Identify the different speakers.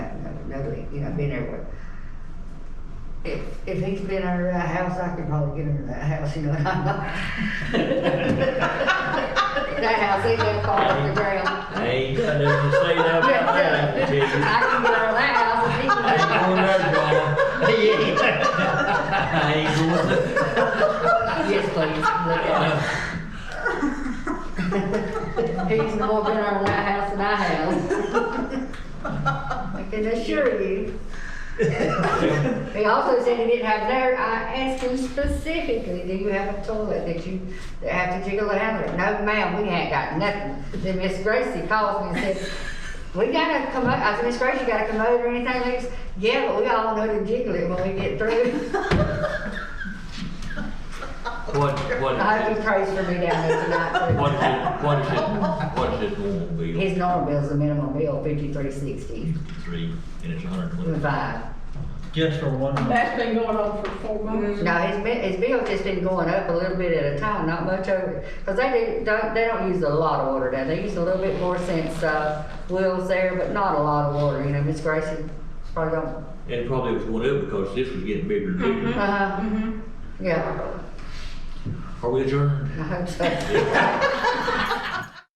Speaker 1: nobody, you know, been everywhere. If, if he's been under that house, I could probably get under that house, you know, and I'm not. That house, ain't gonna fall off the ground.
Speaker 2: I ain't got nothing to say now
Speaker 1: I
Speaker 2: about that, I can tell you.
Speaker 1: can get under that house and he
Speaker 2: I
Speaker 1: can.
Speaker 2: ain't going there, Bob. I ain't going there.
Speaker 1: Yes, please, look at it. He's more been under that house than I have. I can assure you. He also said he didn't have there, I asked him specifically, do you have a toilet that you, that have to jiggle it out of it? No, ma'am, we ain't got nothing. Then Miss Gracie calls me and says, we got a commode, I said, uh, Miss Gracie, you got a commode or anything, Lex? Yeah, but we all know to jiggle it when we get through.
Speaker 2: What, what,
Speaker 1: I hope he prays for me down there tonight. too.
Speaker 2: what is it, what is it, what is it going to be?
Speaker 1: His normal bill's the minimum bill, fifty-three sixty,
Speaker 2: Three, and it's a hundred and
Speaker 1: with
Speaker 2: twenty.
Speaker 1: five.
Speaker 3: Just for one month.
Speaker 4: That's been going on for four months.
Speaker 1: No, his, bi- his bill's just been going up a little bit at a time, not much over, because they do, don't, they don't use a lot of water down there. They use a little bit more since, uh, Will's there, but not a lot of water, you know, Miss Gracie probably don't,
Speaker 2: And it probably was going up because this was getting bigger and bigger.
Speaker 1: uh,
Speaker 4: Mhm.
Speaker 1: yeah,
Speaker 2: Are we adjourned?
Speaker 1: I hope so.